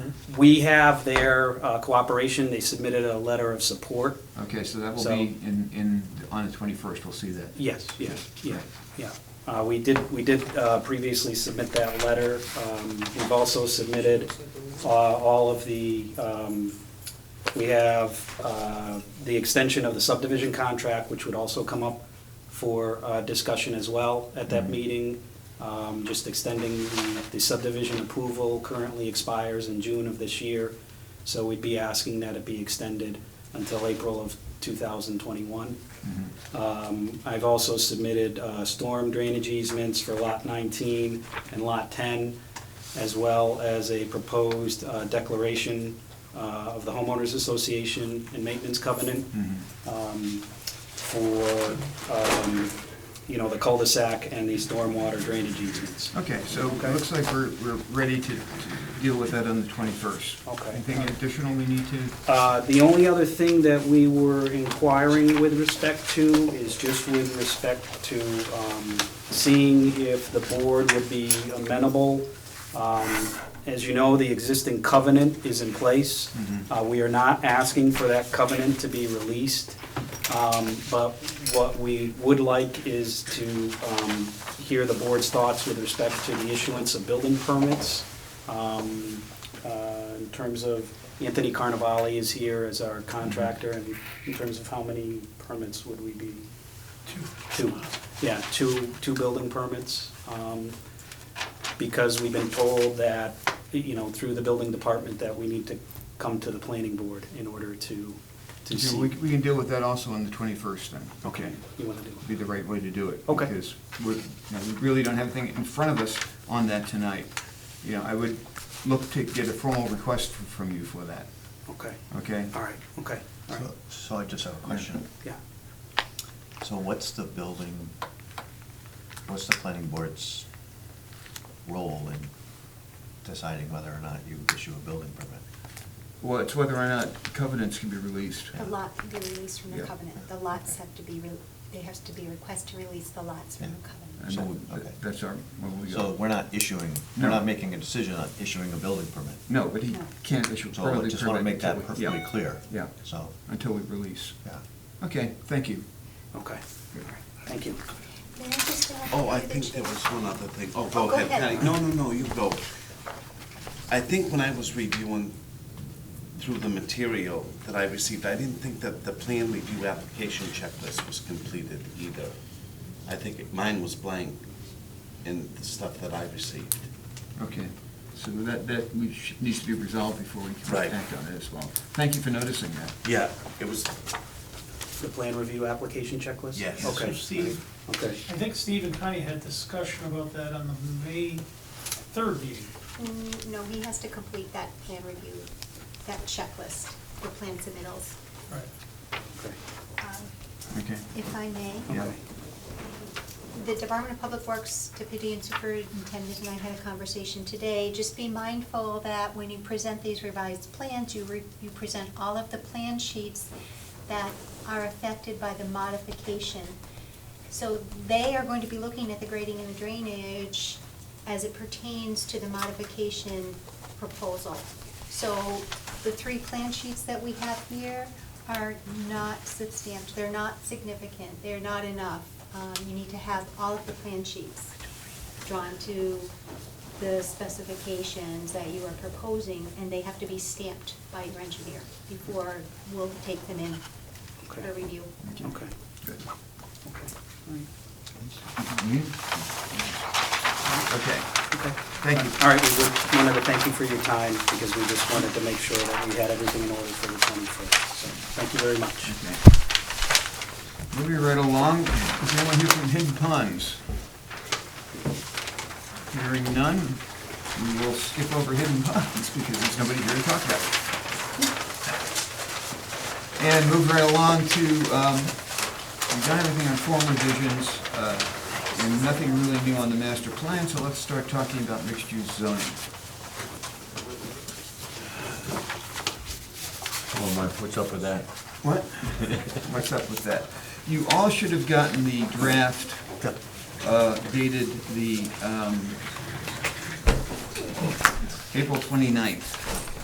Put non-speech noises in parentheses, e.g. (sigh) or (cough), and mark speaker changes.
Speaker 1: We have their uh, cooperation, they submitted a letter of support.
Speaker 2: Okay, so that will
Speaker 1: So-
Speaker 2: be in, in, on the twenty-first, we'll see that.
Speaker 1: Yes, yeah, yeah, yeah. Uh, We did, we did uh, previously submit that letter. Um, We've also submitted uh, all of the, um, we have uh, the extension of the subdivision contract, which would also come up for uh, discussion as well at that
Speaker 2: Mhm.
Speaker 1: meeting. Um, Just extending the- the subdivision approval currently expires in June of this year. So we'd be asking that it be extended until April of 2021.
Speaker 2: Mhm.
Speaker 1: Um, I've also submitted uh, storm drainage easements for Lot 19 and Lot 10, as well as a proposed uh, declaration uh, of the homeowners association and maintenance covenant
Speaker 2: Mhm.
Speaker 1: um, for, um, you know, the cul-de-sac and the stormwater drainage easements.
Speaker 2: Okay, so it
Speaker 1: Okay.
Speaker 2: looks like we're, we're ready to to deal with that on the twenty-first.
Speaker 1: Okay.
Speaker 2: Anything additional we need to,
Speaker 1: Uh, The only other thing that we were inquiring with respect to is just with respect to um, seeing if the board would be amenable. Um, As you know, the existing covenant is in place. Uh, We are not asking for that covenant to be released. Um, But what we would like is to um, hear the board's thoughts with respect to the issuance of building permits. Um, uh, in terms of, Anthony Carnavale is here as our contractor, and in terms of how many permits would we be? Two. Two, yeah, two, two building permits. um, Because we've been told that, you know, through the building department, that we need to come to the planning board in order to, to
Speaker 2: So
Speaker 1: see.
Speaker 2: we, we can deal with that also on the twenty-first then.
Speaker 1: Okay, you want to do
Speaker 2: Be the right way to do it.
Speaker 1: Okay.
Speaker 2: Because we're, you know, we really don't have anything in front of us on that tonight. You know, I would look to get a formal request f- from you for that,
Speaker 1: it? Okay,
Speaker 2: okay?
Speaker 1: all right, okay, all right,
Speaker 3: So- So I just have a question.
Speaker 1: yeah.
Speaker 3: So what's the building, what's the planning board's role in deciding whether or not you issue a building permit?
Speaker 2: Well, it's whether or not covenants can be released.
Speaker 4: The lot can be released from the
Speaker 2: Yeah.
Speaker 4: covenant. The lots have to be, re- there has to be a request to release the lots from the
Speaker 2: And
Speaker 4: covenant.
Speaker 3: So,
Speaker 2: that-
Speaker 3: okay.
Speaker 2: That's our, well, we
Speaker 3: So
Speaker 2: go.
Speaker 3: we're not issuing, we're
Speaker 2: No.
Speaker 3: not making a decision on issuing a building permit.
Speaker 2: No, but he
Speaker 4: No.
Speaker 2: can't issue a
Speaker 3: So I
Speaker 2: building
Speaker 3: just want to
Speaker 2: permit
Speaker 3: make that
Speaker 2: until we- yeah,
Speaker 3: perfectly clear.
Speaker 2: Yeah,
Speaker 3: So,
Speaker 2: until we release.
Speaker 3: yeah.
Speaker 2: Okay, thank you.
Speaker 1: Okay, all right, thank you.
Speaker 4: May I just go ahead
Speaker 5: Oh, I
Speaker 4: and do the
Speaker 5: think there
Speaker 4: check?
Speaker 5: was one other thing. Oh,
Speaker 4: Oh,
Speaker 5: go
Speaker 4: go
Speaker 5: ahead.
Speaker 4: ahead.
Speaker 5: Patty. No, no, no, you go. I think when I was reviewing through the material that I received, I didn't think that the plan review application checklist was completed either. I think it- mine was blank in the stuff that I received.
Speaker 2: Okay, so that, that we sh- needs to be resolved before we
Speaker 5: Right.
Speaker 2: can act on it as well. Thank you for noticing that.
Speaker 5: Yeah, it was,
Speaker 1: The plan review application checklist?
Speaker 5: yes,
Speaker 1: Okay,
Speaker 5: Steve.
Speaker 1: okay.
Speaker 6: I think Steve and Connie had discussion about that on the May third meeting.
Speaker 4: Mm, No, he has to complete that plan review, that checklist, the plan submittals.
Speaker 6: Right.
Speaker 1: Okay.
Speaker 4: Um,
Speaker 2: Okay.
Speaker 4: If I may,
Speaker 2: Yeah.
Speaker 4: the Department of Public Works Deputy and Superintendent and I had a conversation today. Just be mindful that when you present these revised plans, you, re- you present all of the plan sheets that are affected by the modification. So they are going to be looking at the grading and the drainage as it pertains to the modification proposal. So the three plan sheets that we have here are not substantial, they're not significant, they're not enough. Um, You need to have all of the plan sheets drawn to the specifications that you are proposing, and they have to be stamped by your engineer before we'll take them in for
Speaker 1: Okay.
Speaker 4: review.
Speaker 1: Okay, okay,
Speaker 2: Good.
Speaker 1: all right,
Speaker 2: You? Okay,
Speaker 1: okay.
Speaker 2: thank you.
Speaker 1: All right, we would- wanted to thank you for your time, because we just wanted to make sure that we had everything in order for the 21st. So, thank you very much.
Speaker 2: Okay. Moving right along, is anyone here from Hidden Ponds? Hearing none, we will skip over Hidden Ponds (laughs) because there's nobody here to talk about it. And move right along to, um, we've done everything on form revisions, uh, and nothing really new on the master plan, so let's start talking about mixed-use zoning.
Speaker 3: Oh, Mark, what's up with that?
Speaker 2: What? What's up with that? You all should have gotten the draft uh, dated the um, April 29th.